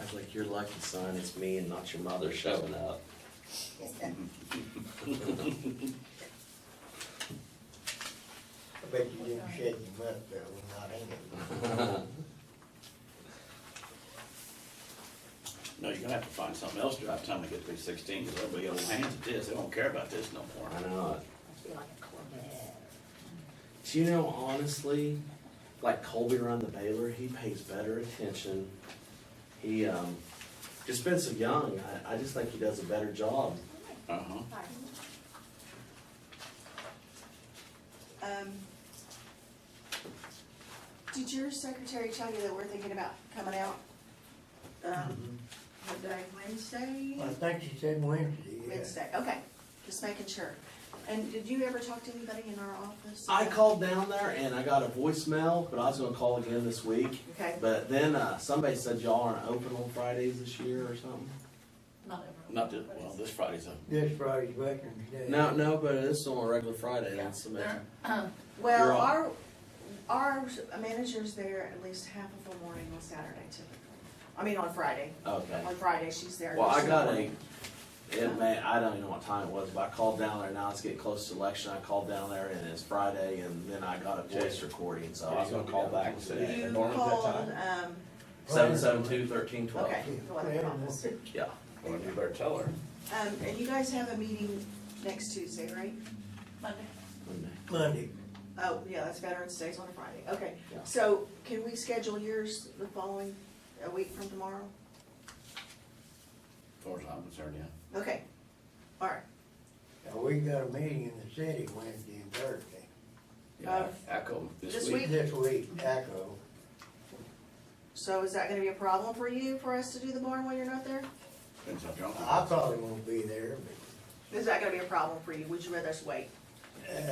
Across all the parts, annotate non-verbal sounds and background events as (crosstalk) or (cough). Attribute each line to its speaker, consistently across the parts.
Speaker 1: Act like you're lucky, son, it's me and not your mother showing up. (laughs)
Speaker 2: I bet you didn't shake your butt though, not in it.
Speaker 3: No, you're gonna have to find something else by the time they get to be sixteen, because everybody old hands at this, they don't care about this no more.
Speaker 1: I know.
Speaker 4: Be like a Corvette.
Speaker 1: Do you know, honestly, like Colby run the Baylor, he pays better attention. He, um, just been so young, I, I just think he does a better job.
Speaker 3: Uh-huh.
Speaker 5: Um, Did your secretary tell you that we're thinking about coming out? Um, what day, Wednesday?
Speaker 2: I think she said Wednesday, yeah.
Speaker 5: Wednesday, okay, just making sure. And did you ever talk to anybody in our office?
Speaker 1: I called down there and I got a voicemail, but I was gonna call again this week.
Speaker 5: Okay,
Speaker 1: But then, uh, somebody said y'all aren't open on Fridays this year or something.
Speaker 4: Not everyone.
Speaker 3: Not this, well, this Friday's a,
Speaker 2: This Friday's Veterans Day.
Speaker 1: No, no, but it's on a regular Friday,
Speaker 4: Yeah,
Speaker 1: that's
Speaker 4: they're,
Speaker 1: amazing.
Speaker 4: um,
Speaker 1: You're
Speaker 5: well,
Speaker 1: on.
Speaker 5: our, our manager's there at least half of the morning on Saturday typically. I mean, on Friday,
Speaker 1: Okay.
Speaker 5: on Friday, she's there.
Speaker 1: Well, I
Speaker 5: most of the
Speaker 1: got a,
Speaker 5: morning.
Speaker 1: it may, I don't even know what time it was, but I called down there, now it's getting close to election, I called down there and it's Friday, and then I got a voice recording, so I was gonna call back today.
Speaker 5: You
Speaker 6: Normally at that
Speaker 5: called, um,
Speaker 1: Seven seven two thirteen twelve,
Speaker 5: okay, the elected office.
Speaker 1: yeah.
Speaker 3: well, you better tell her.
Speaker 5: Um, and you guys have a meeting next Tuesday, right?
Speaker 4: Monday.
Speaker 2: Monday,
Speaker 5: Oh, yeah, that's Veterans Day's on a Friday, okay.
Speaker 1: Yeah.
Speaker 5: So can we schedule yours the following, a week from tomorrow?
Speaker 3: As far as I'm concerned, yeah.
Speaker 5: Okay, all right.
Speaker 2: Now, we got a meeting in the city Wednesday and Thursday.
Speaker 3: Yeah, Echo
Speaker 5: Uh, this
Speaker 3: this week.
Speaker 5: week?
Speaker 2: This week, Taco,
Speaker 5: So is that gonna be a problem for you, for us to do the barn while you're not there?
Speaker 3: Depends how drunk I
Speaker 2: I probably won't be there, but,
Speaker 5: Is that gonna be a problem for you? Would you rather us wait?
Speaker 2: uh,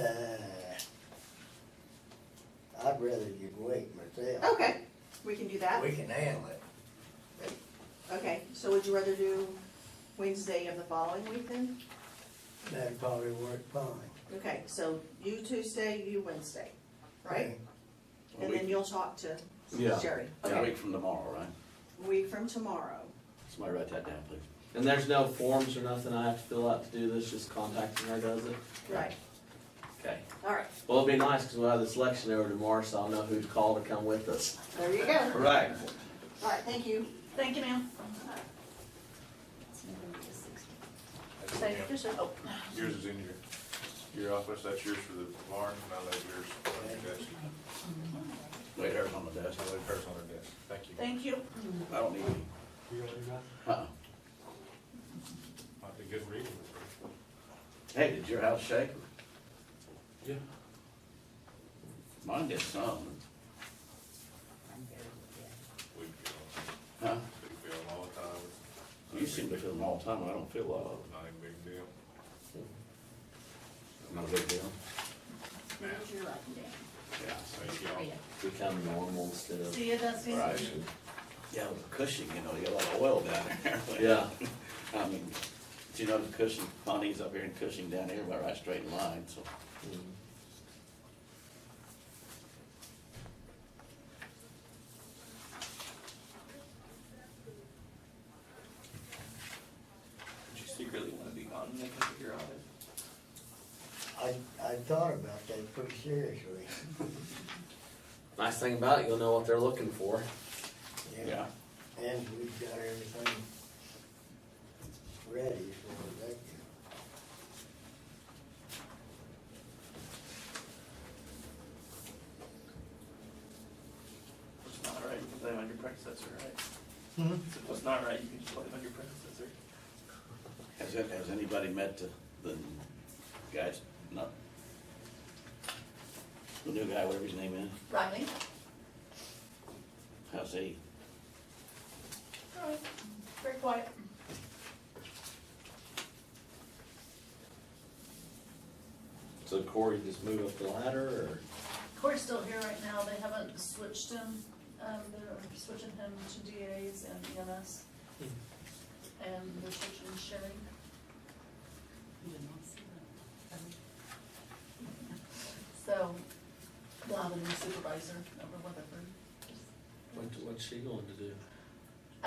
Speaker 2: I'd rather just wait myself.
Speaker 5: Okay, we can do that.
Speaker 2: We can handle it.
Speaker 5: Okay, so would you rather do Wednesday of the following week then?
Speaker 2: That'd probably work fine.
Speaker 5: Okay, so you Tuesday, you Wednesday, right?
Speaker 3: A
Speaker 5: And
Speaker 3: week-
Speaker 5: then you'll talk to
Speaker 1: Yeah.
Speaker 5: Sherry.
Speaker 3: A
Speaker 5: Okay,
Speaker 3: week from tomorrow, right?
Speaker 5: week from tomorrow.
Speaker 3: Somebody write that down, please.
Speaker 1: And there's no forms or nothing I have to fill out to do this, just contacting her does it?
Speaker 5: Right,
Speaker 1: Okay.
Speaker 5: all right,
Speaker 1: Well, it'd be nice, cause we'll have this election over tomorrow, so I'll know who to call to come with us.
Speaker 5: there you go.
Speaker 1: Right.
Speaker 5: All right, thank you.
Speaker 4: Thank you, ma'am.
Speaker 7: It's November the 16th.
Speaker 4: Thank you, sir. Oh,
Speaker 6: Yours is in your, your office, that's yours for the barn, and I leave yours on your desk,
Speaker 3: Wait, hers on the desk.
Speaker 6: I leave hers on her desk, thank you.
Speaker 4: Thank you.
Speaker 3: I don't need any.
Speaker 6: You gonna do that?
Speaker 3: Uh-uh.
Speaker 6: Might be good reading.
Speaker 3: Hey, did your house shake?
Speaker 6: Yeah.
Speaker 3: Mine did some.
Speaker 6: We feel,
Speaker 3: Huh?
Speaker 6: we feel them all the time,
Speaker 3: You seem to feel them all the time, and I don't feel a lot of
Speaker 6: it's not a big deal.
Speaker 3: them. Not a big deal.
Speaker 4: There's your up and down.
Speaker 3: Yeah.
Speaker 6: Thank y'all.
Speaker 1: Become normal instead of,
Speaker 4: See you, Dusty.
Speaker 3: Right. Yeah, with Cushing, you know, you got a lot of oil down (laughs) there.
Speaker 1: yeah,
Speaker 3: I mean, do you know the Cushing, Bonnie's up here and Cushing down here, about right straight in line, so. Did you secretly wanna be gone and they come figure out it?
Speaker 2: I, I thought about that pretty seriously.
Speaker 1: nice thing about it, you'll know what they're looking for.
Speaker 3: Yeah,
Speaker 2: And we've got everything ready for that.
Speaker 8: It's not right, you can blame it on your predecessor, right?
Speaker 2: Hmm?
Speaker 8: If it's not right, you can just blame it on your predecessor.
Speaker 3: has, it- has anybody met the, the guys, not, the new guy, whatever his name is,
Speaker 4: Riley?
Speaker 3: how's he?
Speaker 4: All right. Very quiet.
Speaker 1: So Corey just moved up the ladder, or?
Speaker 4: Corey's still here right now, they haven't switched him, um, they're switching him to DAs and EMS. And they're switching Sherry. You did not see that. So, we'll have a new supervisor, number one,
Speaker 1: What, what's she going to do?